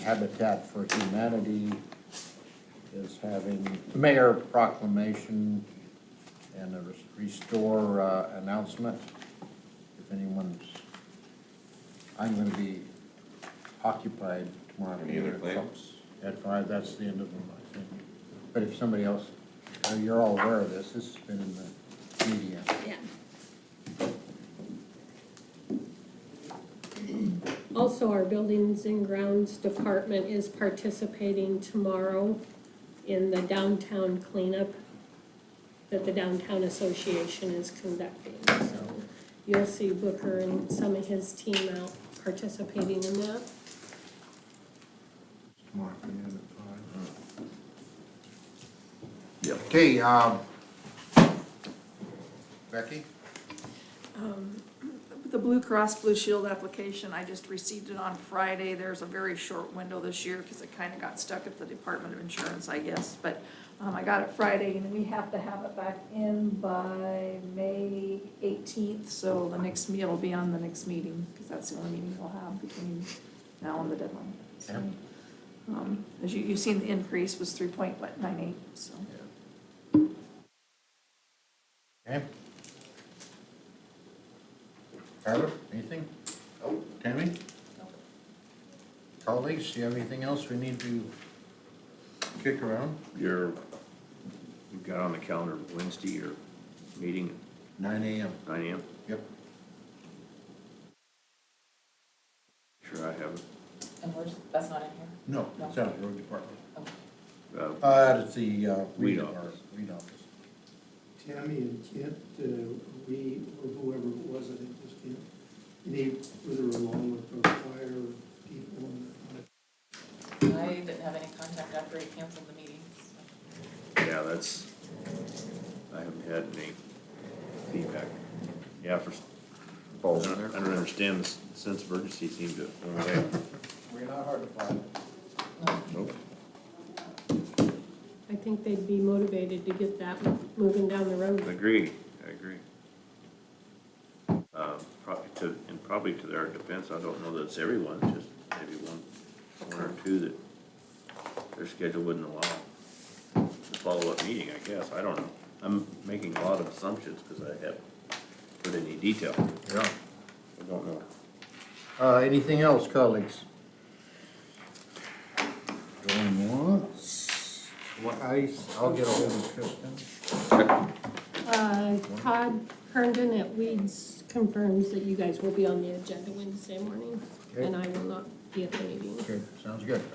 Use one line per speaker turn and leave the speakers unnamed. Habitat for Humanity is having mayor proclamation and a restore uh, announcement. If anyone's, I'm gonna be occupied tomorrow.
Any other claims?
At five, that's the end of them, I think. But if somebody else, uh, you're all aware of this, this has been in the media.
Yeah. Also, our Buildings and Grounds Department is participating tomorrow in the downtown cleanup that the Downtown Association is conducting. So you'll see Booker and some of his team out participating in that.
Tomorrow afternoon at five. Yeah, okay, um, Becky?
The Blue Cross Blue Shield application, I just received it on Friday. There's a very short window this year because it kind of got stuck at the Department of Insurance, I guess. But um, I got it Friday and we have to have it back in by May 18th. So the next meeting will be on the next meeting because that's the only meeting we'll have between now and the deadline. So, um, As you, you've seen, the increase was 3.98, so.
Okay. Tyler, anything? Nope. Tammy? Colleagues, do you have anything else we need to kick around?
You're, we've got on the calendar Wednesday, your meeting
Nine AM.
at nine AM.
Yep.
Sure I have it.
And we're, just- that's not in here?
No, it's out of the road department.
Uh,
Uh, it's the, uh,
Weed
weed office,
office.
weed office.
Tammy and Kent, uh, we, or whoever it was, I think it was Kent, they, whether along with our fire people and
I didn't have any contact after he canceled the meeting, so.
Yeah, that's, I haven't had any feedback. Yeah, for, I don't I don't understand the s- sense of urgency seemed to, oh, okay.
We're not hard to find.
Nope.
I think they'd be motivated to get that moving down the road.
Agree, I agree. Uh, probably to, and probably to their defense, I don't know that it's everyone, just maybe one, one or two that their schedule wouldn't allow the follow-up meeting, I guess, I don't know. I'm making a lot of assumptions because I haven't put any detail,
Yeah.
I don't know.
Uh, anything else, colleagues? Going once, twice, I'll get ahold of Kristen.
Uh, Todd Herndon at Weeds confirms that you guys will be on the agenda Wednesday morning, and I will not be at the meeting.
Okay, sounds good.